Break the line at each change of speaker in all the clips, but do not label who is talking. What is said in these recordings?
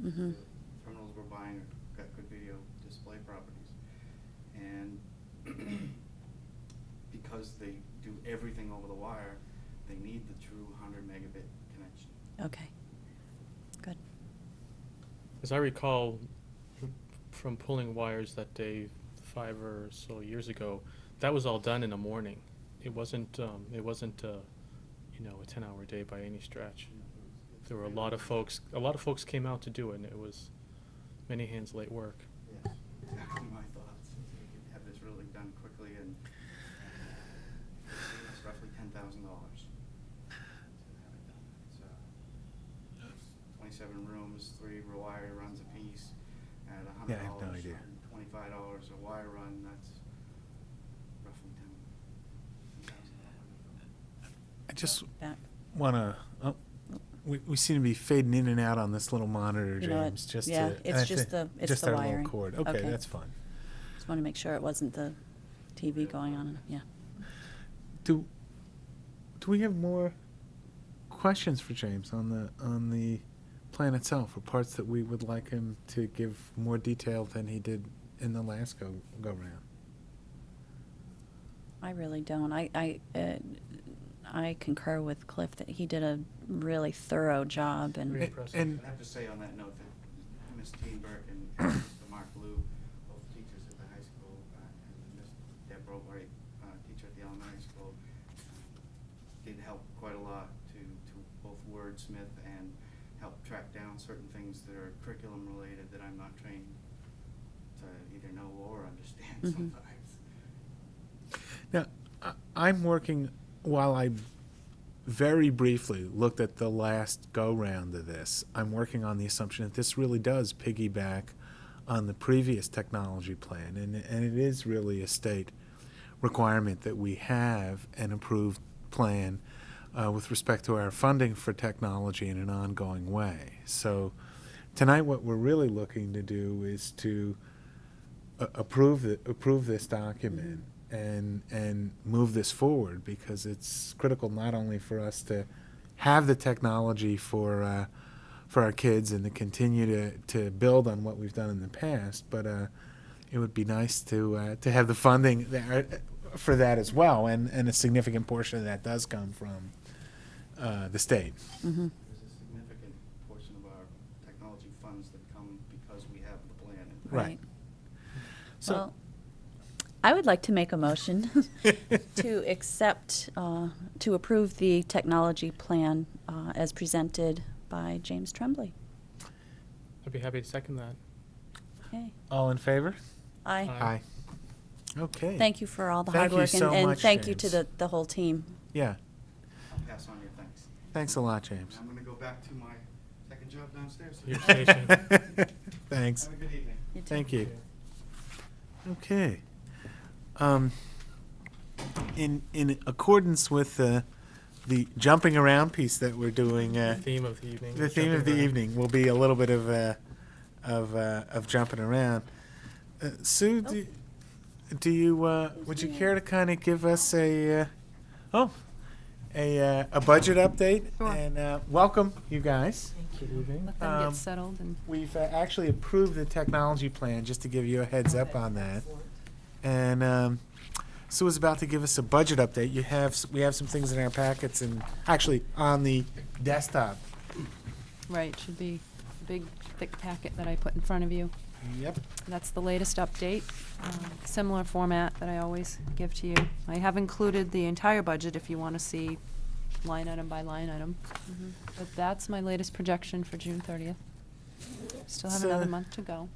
Mhm.
the criminals were buying, got good video display properties. And because they do everything over the wire, they need the true hundred megabit connection.
Okay. Good.
As I recall from pulling wires that day five or so years ago, that was all done in the morning. It wasn't, um, it wasn't, uh, you know, a ten-hour day by any stretch.
You know, it was- it's
There were a
really-
lot of folks, a lot of folks came out to do it, and it was many hands late work.
Yes, exactly my thoughts. We could Have this really done quickly and and, uh, it's roughly ten thousand dollars to have it done. So, twenty-seven rooms, three wire runs apiece, at a
Yeah,
hundred
I have no
dollars,
idea.
twenty-five dollars a wire run, that's roughly ten thousand dollars.
I just
Back.
want to, oh, we, we seem to be fading in and out on this little monitor,
You know what?
James, just to.
Yeah,
and
it's
I
just
think-
the- it's
just
the
our little
wiring.
cord.
Okay.
Okay, that's fine.
Just want to make sure it wasn't the TV going on. Yeah.
Do, do we have more questions for James on the, on the plan itself, or parts that we would like him to give more detail than he did in the last go, go round?
I really don't. I, I, uh, I concur with Cliff that he did a really thorough job and.
Very
And-
impressive.
and-
I have to say on that note that Ms. Teen Burke and Mr. Mark Lou, both teachers at the high school, uh, and Ms. Deb Robright, uh, teacher at the elementary school, um, did help quite a lot to, to both wordsmith and help track down certain things that are curriculum related that I'm not trained to either know or understand
Mhm.
sometimes.
Now, I- I'm working, while I very briefly looked at the last go-round of this, I'm working on the assumption that this really does piggyback on the previous technology plan, and, and it is really a state requirement that we have an approved plan uh, with respect to our funding for technology in an ongoing way. So tonight, what we're really looking to do is to a- approve, the- approve this document and, and move this forward because it's critical not only for us to have the technology for, uh, for our kids and to continue to, to build on what we've done in the past, but, uh, it would be nice to, uh, to have the funding there uh, for that as well. And, and a significant portion of that does come from, uh, the state.
Mhm.
There's a significant portion of our technology funds that come because we have the plan in place.
Right. So-
Well, I would like to make a motion to accept, uh, to approve the technology plan uh, as presented by James Tremblay.
I'd be happy to second that.
Okay.
All in favor?
Aye.
Aye.
Okay.
Thank you for all the hard
Thank you
work and-
so
and
much,
thank you to
James.
the, the whole team.
Yeah,
I'll pass on your thanks.
thanks a lot, James.
I'm gonna go back to my second job downstairs.
Your station.
Thanks.
Have a good evening.
You too.
Thank you. Okay. Um, in, in accordance with the, the jumping around piece that we're doing, uh,
Theme of the evening.
the theme of the
jumping around.
evening will be a little bit of, uh, of, uh, of jumping around. Uh, Sue, do, do you, uh, would you care to kind of give us a, uh, oh, a, uh, a budget update?
Sure.
And, uh, welcome, you guys.
Good evening.
Let them
Um,
get settled and.
We've uh, actually approved the technology plan, just to give you a heads up on that. And um, Sue is about to give us a budget update. You have, s- we have some things in our packets and actually on the desktop.
Right, should be a big, thick packet that I put in front of you.
Yep.
That's the latest update, um, similar format that I always give to you. I have included the entire budget if you want to see line item by line item.
Mm-hmm.
But that's my latest projection for June thirtieth. Still have
So-
another month to go.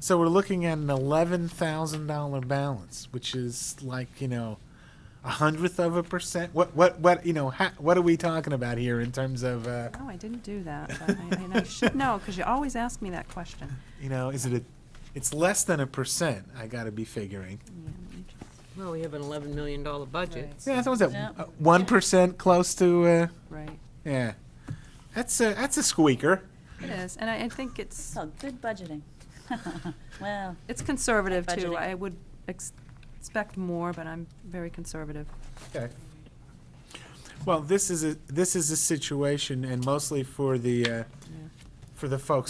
So we're looking at an eleven thousand dollar balance, which is like you know, a hundredth of a percent. What what what you know? Ha- what are we talking about here in terms of uh,
No, I didn't do that, but I, and I should know, because you always ask me that question.
you know? Is it a? It's less than a percent. I got to be figuring.
Yeah, let me just-
Well, we have an eleven million dollar budget.
Right.
Yeah, that was at
Yeah.
one close to. Uh,
Right,
yeah, that's a that's a squeaker.
it is, and I, I think it's.
Oh, good budgeting. Well,
It's conservative too.
Budgeting.
I would ex- expect more, but I'm very conservative.
Okay. Well, this is a this is a situation, and mostly for the uh,
Yeah.
for the folks